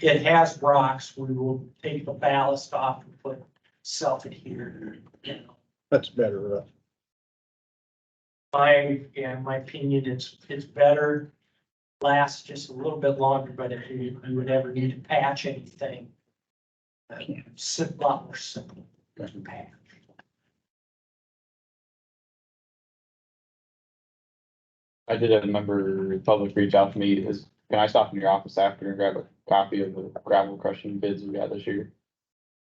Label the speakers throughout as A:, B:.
A: It has rocks, we will take the ballast off and put self-adhered, you know.
B: That's better. uh,
A: My, yeah, my opinion is, it's better, lasts just a little bit longer, but if you, you would ever need to patch anything. uh, It's a lot more simple than patch.
C: I did have a member of the public reach out to me, is, can I stop in your office after and grab a copy of the gravel crushing bids we got this year?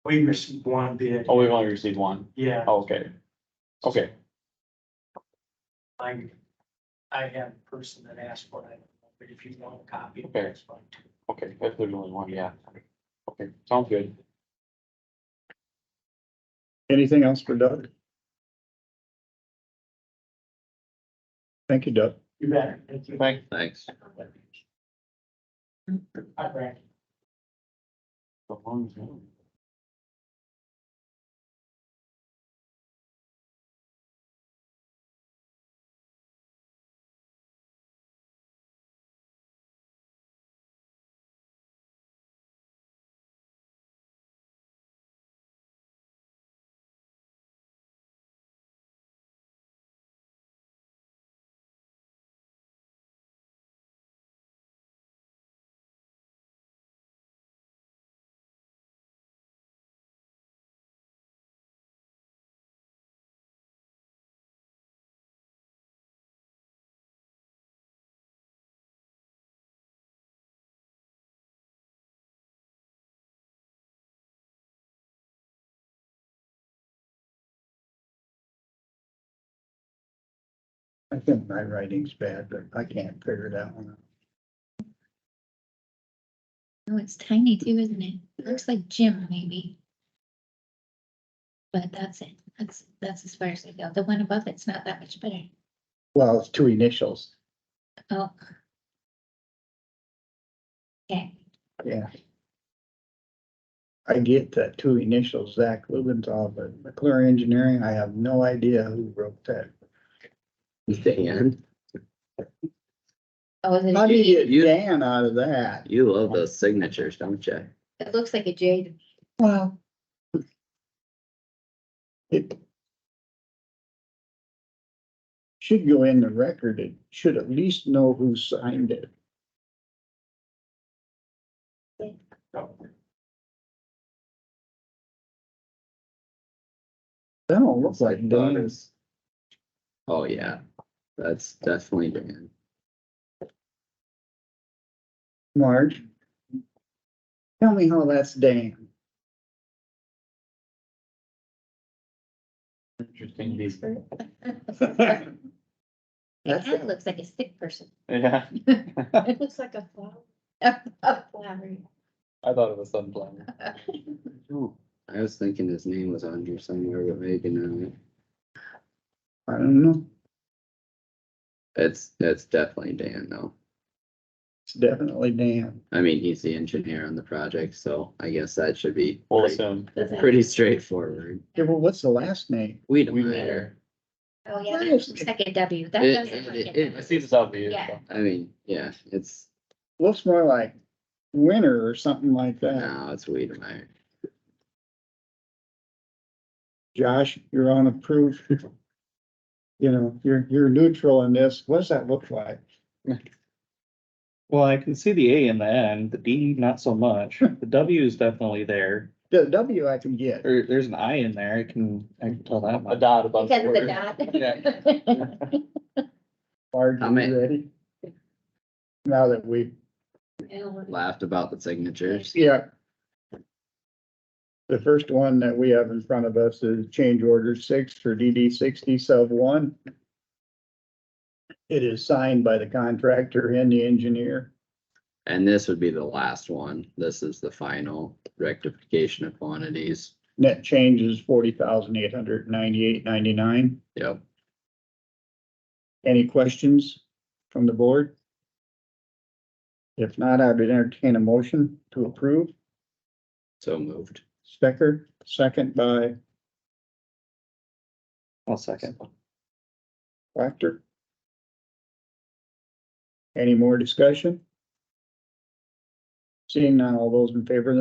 A: We received one bid,
C: Oh, we've only received one.
A: yeah,
C: Oh, okay. Okay,
A: I, I have a person that asked for it, but if you want a copy,
C: Okay.
A: that's fine too.
C: okay, if there's only one, yeah. Okay, sounds good.
B: Anything else for Doug? Thank you, Doug.
A: You better, thank you.
C: Thanks.
D: Thanks.
A: Hi, Brad.
B: I think my writing's bad, but I can't figure that one out.
E: Oh, it's tiny too, isn't it? It looks like Jim maybe. But that's it. That's, that's as far as I go. The one above it's not that much better.
B: Well, it's two initials.
E: Oh. Okay,
B: Yeah. I get that two initials, Zach Lubenthal, but McClure Engineering, I have no idea who wrote that.
D: Dan,
E: oh, is it,
B: How
E: a
B: do
E: J?
B: you
D: You-
B: get Dan out of that?
D: you love those signatures, don't you?
E: it looks like a J. to-
B: Well. It. Should go in the record. It should at least know who signed it. That don't look like Dan.
D: Oh, yeah, that's definitely Dan.
B: Marge. Tell me how that's Dan.
C: Interesting, these,
E: It kinda
B: That's-
E: looks like a sick person.
C: yeah,
E: It looks like a flower. A flower.
C: I thought it was sunflower.
D: Oh, I was thinking his name was on here somewhere, but maybe not.
B: I don't know.
D: It's, it's definitely Dan though.
B: It's definitely Dan.
D: I mean, he's the engineer on the project, so I guess that should be
C: We'll
D: pretty-
C: assume.
E: Does that-
D: pretty straightforward.
B: Yeah, well, what's the last name?
D: We don't
C: Weed
D: matter.
E: Oh, yeah,
B: Why
E: that
B: is
E: looks like a W. That
D: It-
E: doesn't look
D: it-
E: like
D: it-
E: a
C: I
E: W.
C: see this out here.
E: Yeah.
D: I mean, yeah, it's,
B: Looks more like Winter or something like that.
D: no, it's Weedemeyer.
B: Josh, you're on approved. You know, you're, you're neutral in this. What does that look like?
F: Well, I can see the A in the end, the D not so much. The W is definitely there.
B: The W I can get.
F: There, there's an I in there. I can, I can tell that
C: A
F: much.
C: dot above.
E: Because of the
C: word.
E: dot.
B: Marge,
D: I
B: are
D: mean-
B: you ready? Now that we,
D: Laughed about the signatures.
B: yeah. The first one that we have in front of us is change order six for DD sixty sub one. It is signed by the contractor and the engineer.
D: And this would be the last one. This is the final rectification of quantities.
B: Net change is forty thousand eight hundred ninety-eight ninety-nine.
D: Yep.
B: Any questions from the board? If not, I would entertain a motion to approve.
D: So moved.
B: Stecker, second by
F: One second.
B: Proctor. Any more discussion? Seeing none, all those in favor of the